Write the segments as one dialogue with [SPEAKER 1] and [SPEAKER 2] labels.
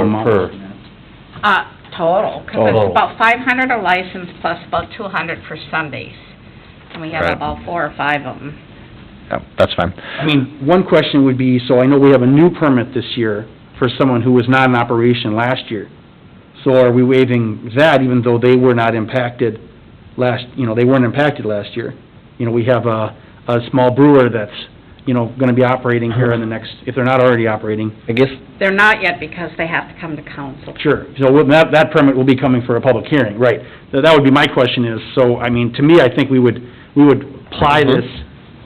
[SPEAKER 1] Or per?
[SPEAKER 2] Uh, total, 'cause
[SPEAKER 1] Total.
[SPEAKER 2] it's about five hundred a license plus about two hundred for Sundays. And we have
[SPEAKER 1] Right.
[SPEAKER 2] about four or five of them.
[SPEAKER 1] Yeah, Oh, that's fine.
[SPEAKER 3] I mean, one question would be, so I know we have a new permit this year for someone who was not in operation last year. So are we waiving that even though they were not impacted last, you know, they weren't impacted last year? You know, we have a, a small brewer that's, you know, gonna be operating here in the next, if they're not already operating,
[SPEAKER 1] I guess,
[SPEAKER 2] They're not yet because they have to come to council.
[SPEAKER 3] Sure, so with that, that permit will be coming for a public hearing, right. So That would be my question is, so, I mean, to me, I think we would, we would apply this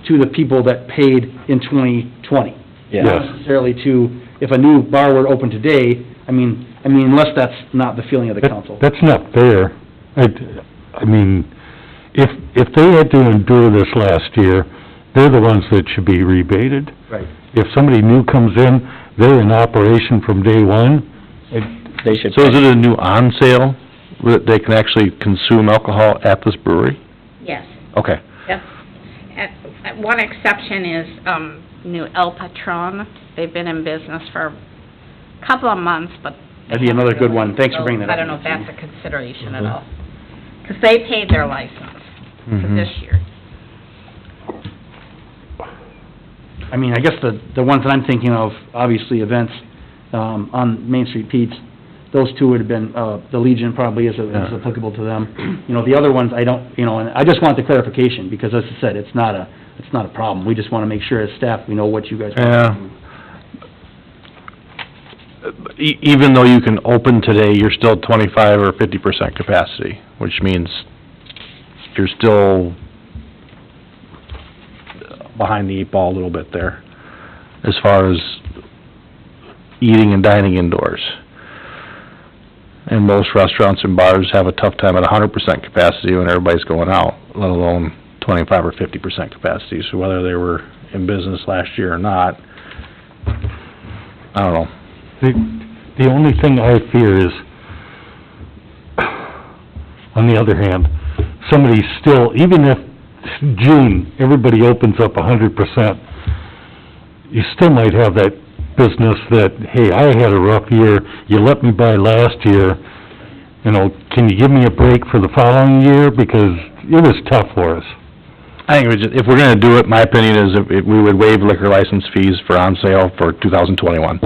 [SPEAKER 3] to the people that paid in 2020. Not
[SPEAKER 1] yeah.
[SPEAKER 3] necessarily to, if a new bar were to open today, I mean, I mean, unless that's not the feeling of the
[SPEAKER 4] That-
[SPEAKER 3] council.
[SPEAKER 4] That's not fair. I, I mean, if, if they had to endure this last year, they're the ones that should be rebated.
[SPEAKER 3] Right.
[SPEAKER 4] If somebody new comes in, they're in operation from day one.
[SPEAKER 1] They should. So is it a new on sale that they can actually consume alcohol at this brewery?
[SPEAKER 2] Yes,
[SPEAKER 1] Okay.
[SPEAKER 2] yep. And uh, one exception is, um, New El Patron. They've been in business for a couple of months, but. they
[SPEAKER 3] That'd be another good one.
[SPEAKER 2] haven't really-
[SPEAKER 3] Thanks for bringing that
[SPEAKER 2] I
[SPEAKER 3] up. Mm-hmm.
[SPEAKER 2] don't know if that's a consideration at all. Because they paid their license for
[SPEAKER 3] Mm-hmm.
[SPEAKER 1] Mhm.
[SPEAKER 2] this year.
[SPEAKER 3] I mean, I guess the, the ones that I'm thinking of, obviously, events, um, on Main Street Pete's, those two would have been, uh, the Legion probably is is
[SPEAKER 1] Yeah.
[SPEAKER 3] applicable to them. You know, the other ones, I don't, you know, and I just want the clarification, because as I said, it's not a, it's not a problem. We just want to make sure as staff, we know what you guys want.
[SPEAKER 1] Yeah. E- even though you can open today, you're still twenty-five or fifty percent capacity, which means you're still behind the eight ball a little bit there, as far as eating and dining indoors. And most restaurants and bars have a tough time at hundred percent capacity when everybody's going out, let alone twenty-five or fifty percent capacity. So whether they were in business last year or not, I don't know.
[SPEAKER 4] The, the only thing I fear is, on the other hand, somebody's still, even if June, everybody opens up a hundred percent, you still might have that business that, hey, I had a rough year, you let me buy last year, you know, can you give me a break for the following year, because it was tough for us.
[SPEAKER 1] I think we just, if we're gonna do it, my opinion is if, if we would waive liquor license fees for on sale for two thousand twenty-one.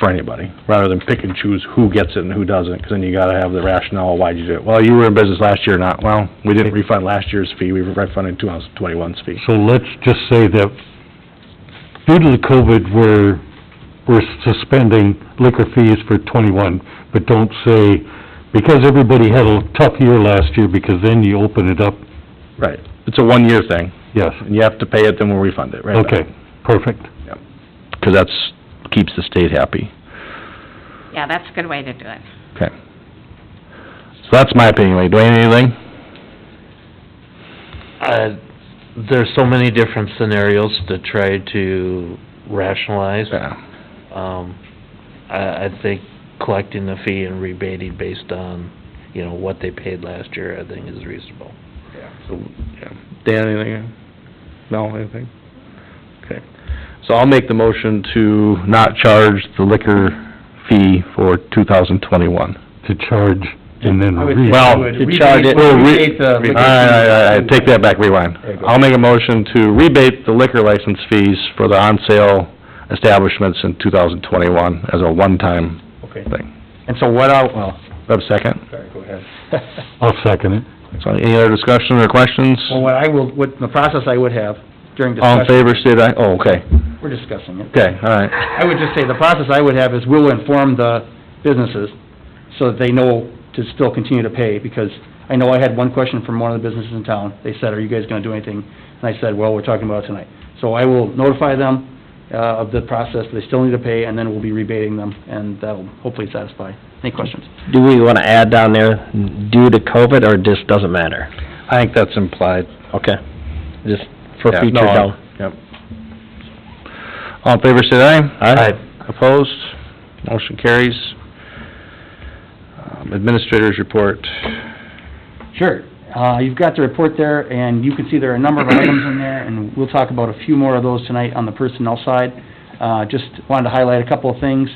[SPEAKER 1] For anybody, rather than pick and choose who gets it and who doesn't, 'cause then you gotta have the rationale, why'd you do it? Well, you were in business last year, not, well, we didn't refund last year's fee, we refunded two thousand twenty-one's fee.
[SPEAKER 4] So let's just say that due to the COVID, we're, we're suspending liquor fees for twenty-one, but don't say, because everybody had a tough year last year, because then you open it up,
[SPEAKER 1] Right. It's a one-year thing,
[SPEAKER 4] yes,
[SPEAKER 1] and you have to pay it, then we'll refund it, right? back.
[SPEAKER 4] okay, perfect.
[SPEAKER 1] 'Cause that's, keeps the state happy.
[SPEAKER 2] Yeah, that's a good way to do it.
[SPEAKER 1] Okay. So that's my opinion, Lee. Dwayne, anything?
[SPEAKER 5] Uh, there's so many different scenarios to try to rationalize.
[SPEAKER 1] Yeah.
[SPEAKER 5] Um, I, I think collecting the fee and rebating based on, you know, what they paid last year, I think is reasonable.
[SPEAKER 1] So, yeah. Dan, anything? No, anything? Okay. So I'll make the motion to not charge the liquor fee for two thousand twenty-one.
[SPEAKER 4] To charge and then
[SPEAKER 3] I would
[SPEAKER 4] re-
[SPEAKER 3] think
[SPEAKER 1] Well,
[SPEAKER 3] we would
[SPEAKER 1] to
[SPEAKER 3] rebate-
[SPEAKER 1] charge it-
[SPEAKER 3] we'll
[SPEAKER 1] re-
[SPEAKER 3] rebate the uh, liquor
[SPEAKER 1] All right, all right, all
[SPEAKER 3] fee.
[SPEAKER 1] right, take that back, rewind.
[SPEAKER 3] There you go.
[SPEAKER 1] I'll make a motion to rebate the liquor license fees for the on-sale establishments in two thousand twenty-one as a one-time
[SPEAKER 3] Okay.
[SPEAKER 1] thing.
[SPEAKER 3] And so what I'll, well,
[SPEAKER 1] Do I have a second?
[SPEAKER 3] sorry, go ahead.
[SPEAKER 4] I'll second it.
[SPEAKER 1] So any other discussion or questions?
[SPEAKER 3] Well, what I will, what, the process I would have during
[SPEAKER 1] All in
[SPEAKER 3] discussion,
[SPEAKER 1] favor, state aye. Oh, okay,
[SPEAKER 3] we're discussing it.
[SPEAKER 1] okay, all right.
[SPEAKER 3] I would just say, the process I would have is we'll inform the businesses so that they know to still continue to pay, because I know I had one question from one of the businesses in town. They said, are you guys gonna do anything? And I said, well, we're talking about it tonight. So I will notify them, uh, of the process, they still need to pay, and then we'll be rebating them, and that'll hopefully satisfy. Any questions?
[SPEAKER 6] Do we want to add down there, due to COVID, or just doesn't matter?
[SPEAKER 1] I think that's implied.
[SPEAKER 6] Okay, just for
[SPEAKER 1] Yeah,
[SPEAKER 6] future
[SPEAKER 1] no, I-
[SPEAKER 6] down.
[SPEAKER 1] Yep. All in favor, say aye.
[SPEAKER 6] Aye.
[SPEAKER 1] Opposed? Motion carries. Um, Administrators report.
[SPEAKER 3] Sure. Uh, You've got the report there, and you can see there are a number of items in there, and we'll talk about a few more of those tonight on the personnel side. Uh, Just wanted to highlight a couple of things.